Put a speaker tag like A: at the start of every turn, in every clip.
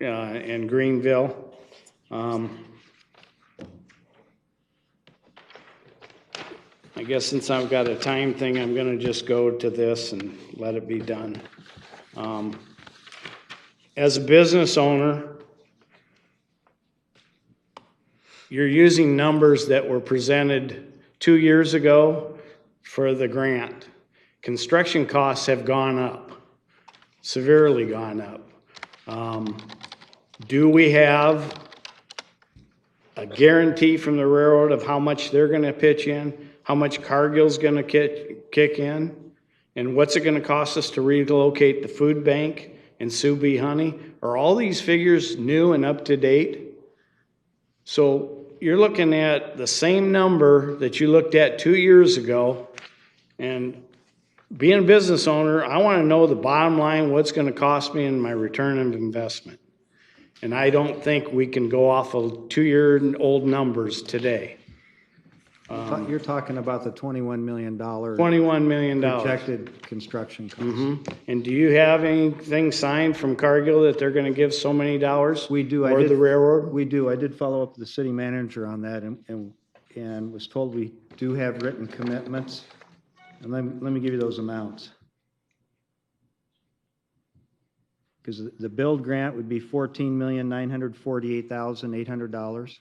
A: uh, and Greenville. Um, I guess since I've got a time thing, I'm gonna just go to this and let it be done. Um, As a business owner, you're using numbers that were presented two years ago for the grant. Construction costs have gone up, severely gone up. Um, Do we have a guarantee from the railroad of how much they're gonna pitch in? How much Cargill's gonna kick, kick in? And what's it gonna cost us to relocate the food bank and Sue Bee Honey? Are all these figures new and up to date? So you're looking at the same number that you looked at two years ago. And being a business owner, I want to know the bottom line, what's going to cost me and my return of investment. And I don't think we can go off of two-year-old numbers today.
B: Ta- You're talking about the $21 million
A: Twenty-one million dollars.
B: projected construction costs.
A: And do you have anything signed from Cargill that they're going to give so many dollars?
B: We do, I
A: Or the
B: did,
A: railroad?
B: we do, I did follow up with the city manager on that and, and, and was told we do have written commitments. And let, me- let me give you those amounts. Because the build grant would be $14,948,800.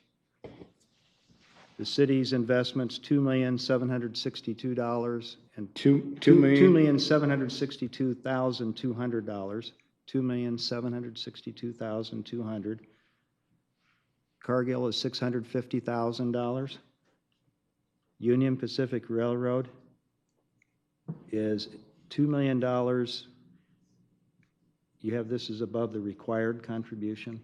B: The city's investments, $2,762. And
A: Two, two
B: Two two
A: million?
B: million seven hundred sixty-two thousand two hundred dollars, two million seven hundred sixty-two thousand two hundred. Cargill is six hundred fifty thousand dollars. Union Pacific Railroad is two million dollars. You have, this is above the required contribution,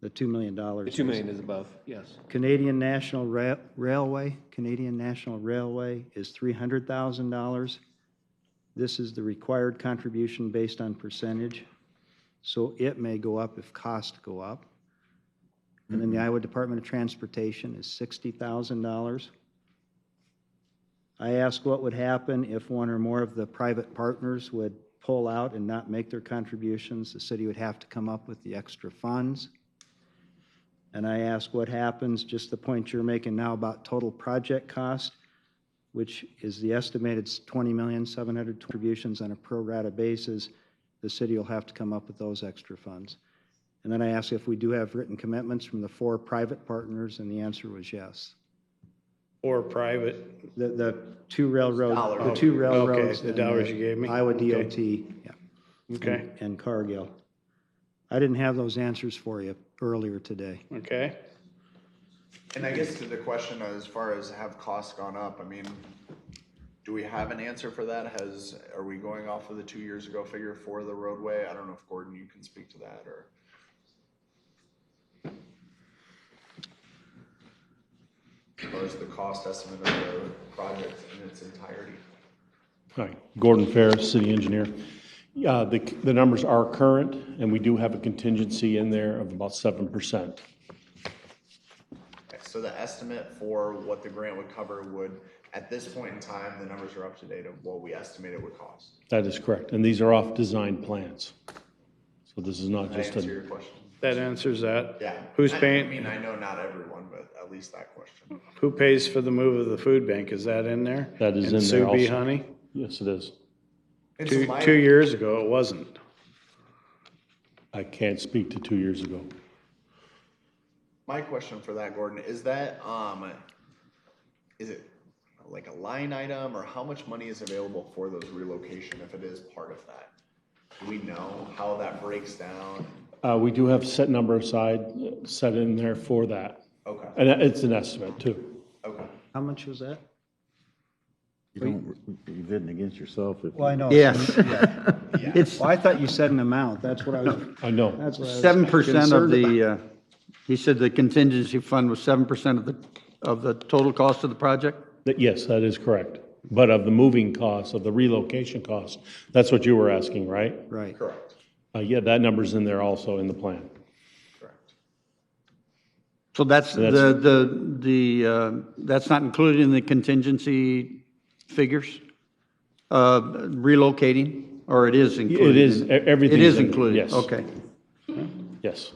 B: the two million dollars.
C: The 2 million is above, yes.
B: Canadian National Ra- Railway, Canadian National Railway is $300,000. This is the required contribution based on percentage, so it may go up if costs go up. And then the Iowa Department of Transportation is $60,000. I asked what would happen if one or more of the private partners would pull out and not make their contributions. The city would have to come up with the extra funds. And I ask what happens, just the point you're making now about total project cost, which is the estimated 20 million, 700 contributions on a pro rata basis, the city will have to come up with those extra funds. And then I ask if we do have written commitments from the four private partners, and the answer was yes.
A: Or private?
B: The, the two railroads, the two railroads.
A: the
B: and
A: dollars you gave me?
B: Iowa
A: Okay.
B: DOT, yeah.
A: Okay,
B: And Cargill. I didn't have those answers for you earlier today.
A: okay.
D: And I guess to the question as far as have costs gone up, I mean, do we have an answer for that? Has, are we going off of the two years ago figure for the roadway? I don't know if Gordon, you can speak to that or. Or is the cost estimate of the project in its entirety?
E: Hi, Gordon Ferris, city engineer. Yeah, the, the numbers are current, and we do have a contingency in there of about seven percent.
D: So the estimate for what the grant would cover would, at this point in time, the numbers are up to date of what we estimate it would cost.
E: That is correct, and these are off design plans. So this is not
D: Did I
E: just
D: answer
E: a,
D: your question?
A: That answers that.
D: Yeah.
A: Who's
D: I- I
A: paying,
D: mean, uh, I know not everyone, but at least that question.
A: who pays for the move of the food bank? Is that in there?
E: That is
A: And
E: in there
A: Sue Bee
E: also.
A: Honey?
E: yes, it is.
D: It's
A: Two,
D: my-
A: two years ago, it wasn't.
E: I can't speak to two years ago.
D: My question for that, Gordon, is that, um, is it like a line item or how much money is available for those relocation if it is part of that? Do we know how that breaks down?
E: Uh, we do have set number aside, uh, set in there for that,
D: Okay,
E: and it's an estimate too.
D: okay.
B: How much was that?
F: You don't, you're bidding against yourself if.
B: Well, I
F: you-
B: know.
G: Yes. It's
B: Well, I thought you said an amount, that's what I was,
E: I know,
B: that's what I was.
G: seven percent of
B: concerned
G: the, uh, he said the contingency fund was seven percent of the, of the total cost of the project?
E: that, yes, that is correct. But of the moving costs, of the relocation costs, that's what you were asking, right?
B: Right.
D: Correct,
E: Uh, yeah, that number's in there also in the plan.
D: correct.
G: So that's the,
E: That's-
G: the, the, uh, that's not included in the contingency figures? Uh, Relocating, or it is
E: It
G: included?
E: is, e- everything.
G: It is included,
E: Yes.
G: okay.
E: Yes.